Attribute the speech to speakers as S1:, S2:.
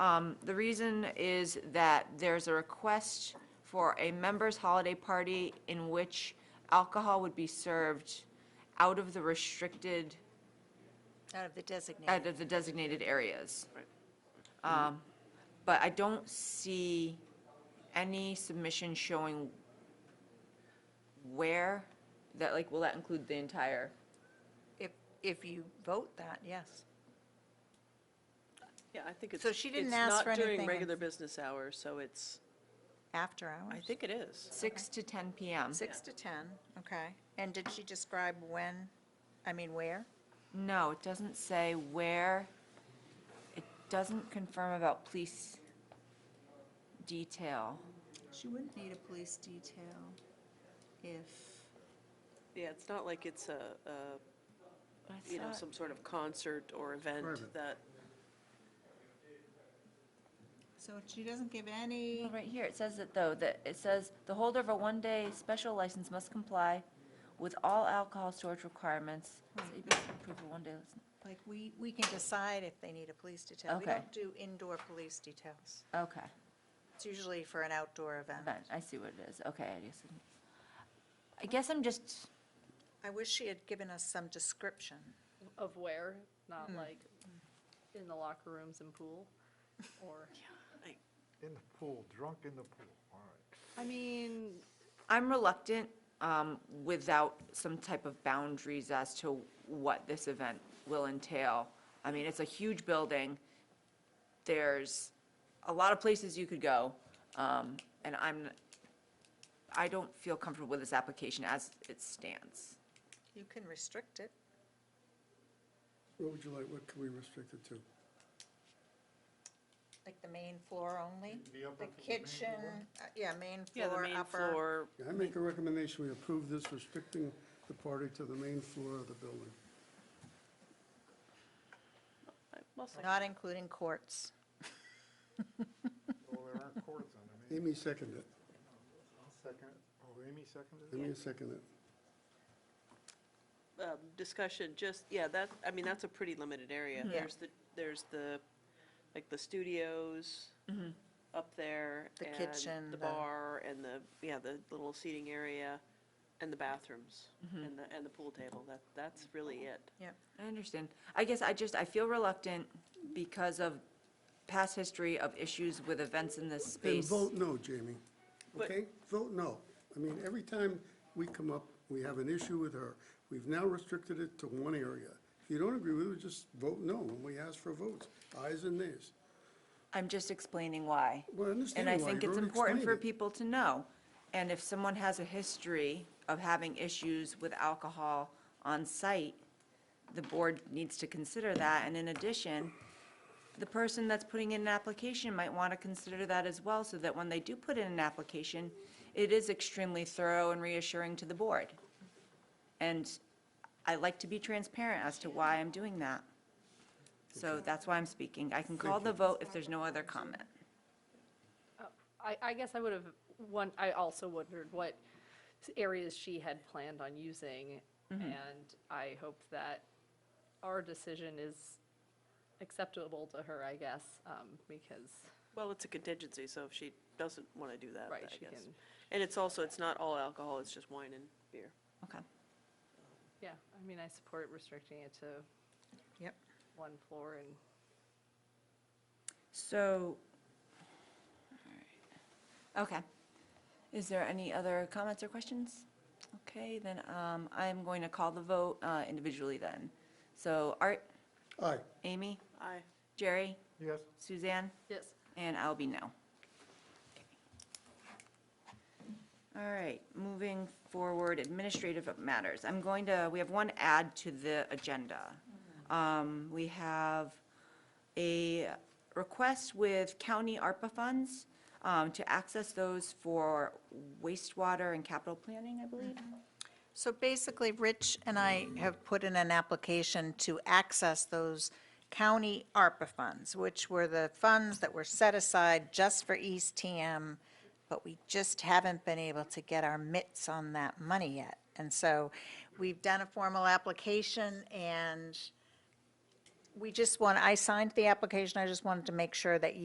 S1: Um, The reason is that there's a request for a members' holiday party in which alcohol would be served out of the restricted,
S2: Out of the designated.
S1: out of the designated areas. Um, But I don't see any submission showing where, that like, will that include the entire?
S2: If, if you vote that, yes.
S3: Yeah, I think it's.
S2: So she didn't
S3: it's
S2: ask
S3: not
S2: for anything
S3: During
S2: in-
S3: regular business hours, so it's,
S2: After
S3: I
S2: hours?
S3: think it is.
S1: Six to 10 PM.
S2: Six to 10, okay. And did she describe when, I mean, where?
S1: No, it doesn't say where. It doesn't confirm about police detail.
S2: She wouldn't need a police detail if.
S3: Yeah, it's not like it's a, a,
S1: But I
S3: you know,
S1: thought-
S3: some sort of concert or event
S4: Private.
S3: that,
S2: So she doesn't give any,
S1: Well, Right here, it says it though, that, it says, "The holder of a one-day special license must comply with all alcohol storage requirements."
S3: Hmm.
S1: So you must approve a one-day license.
S2: like, we, we can decide if they need a police detail. We
S1: Okay.
S2: don't do indoor police details.
S1: Okay,
S2: It's usually for an outdoor event.
S1: fine, I see what it is. Okay, I guess. I'm- I guess I'm just,
S2: I wish she had given us some description.
S5: Of where, not like in the locker rooms and pool, or,
S4: In the pool, drunk in the pool, all
S3: I
S4: right.
S3: mean,
S1: I'm reluctant um, without some type of boundaries as to what this event will entail. I mean, it's a huge building. There's a lot of places you could go. um, And I'm, I don't feel comfortable with this application as it stands.
S2: You can restrict it.
S6: What would you like, what can we restrict it to?
S2: Like the main floor only?
S4: The upper
S2: The
S4: floor, main
S2: kitchen, uh, yeah, main
S3: yeah, the
S2: floor,
S3: main
S2: upper.
S3: floor,
S6: Yeah, I make a recommendation, we approve this restricting the party to the main floor of the building.
S3: well, second.
S2: Not including courts.
S4: Well, there aren't cords on them. Amy
S6: Amy seconded it.
S4: second, oh, Amy seconded it?
S6: Amy seconded it.
S3: um, discussion, just, yeah, that, I mean, that's a pretty limited area.
S2: Yeah.
S3: There's the, there's the, like, the studios up there.
S2: Mm-hmm. The
S3: and
S2: kitchen,
S3: The
S2: the-
S3: bar and the, yeah, the little seating area and the bathrooms
S2: Mm-hmm.
S3: and the, and the pool table. That, that's really it.
S2: Yep.
S1: I understand. I guess I just, I feel reluctant because of past history of issues with events in this
S6: And
S1: space.
S6: vote no, Jamie,
S3: But-
S6: okay? Vote no. I mean, every time we come up, we have an issue with her. We've now restricted it to one area. If you don't agree with it, just vote no when we ask for votes, ayes and nays.
S1: I'm just explaining why.
S6: Well, I understand
S1: And I
S6: why.
S1: think
S6: You've
S1: it's
S6: already
S1: important for
S6: explained it.
S1: people to know. And if someone has a history of having issues with alcohol on site, the board needs to consider that. And in addition, the person that's putting in an application might want to consider that as well, so that when they do put in an application, it is extremely thorough and reassuring to the board. And I like to be transparent as to why I'm doing that. So that's why I'm speaking. I can call the vote if there's no other comment.
S5: I, I guess I would have, one, I also wondered what areas she had planned on using, and I hope that our decision is acceptable to her, I guess, um, because,
S3: Well, it's a contingency, so if she doesn't want to do that,
S5: Right,
S3: I
S5: she
S3: guess.
S5: can-
S3: And it's also, it's not all alcohol, it's just wine and beer.
S1: Okay.
S5: yeah, I mean, I support restricting it to
S2: Yep.
S5: one floor and
S1: So, all right. okay. Is there any other comments or questions? Okay, then um, I'm going to call the vote uh, individually then. So Art,
S6: Aye.
S1: Amy,
S3: Aye.
S1: Jerry,
S4: Yes,
S1: Suzanne,
S5: Yes.
S1: and I'll be no. All right, moving forward, administrative matters. I'm going to, we have one add to the agenda. Um, We have a request with county ARPA funds um, to access those for wastewater and capital planning, I believe.
S2: So basically, Rich and I have put in an application to access those county ARPA funds, which were the funds that were set aside just for East TM, but we just haven't been able to get our mitts on that money yet. And so we've done a formal application, and we just want, I signed the application, I just wanted to make sure that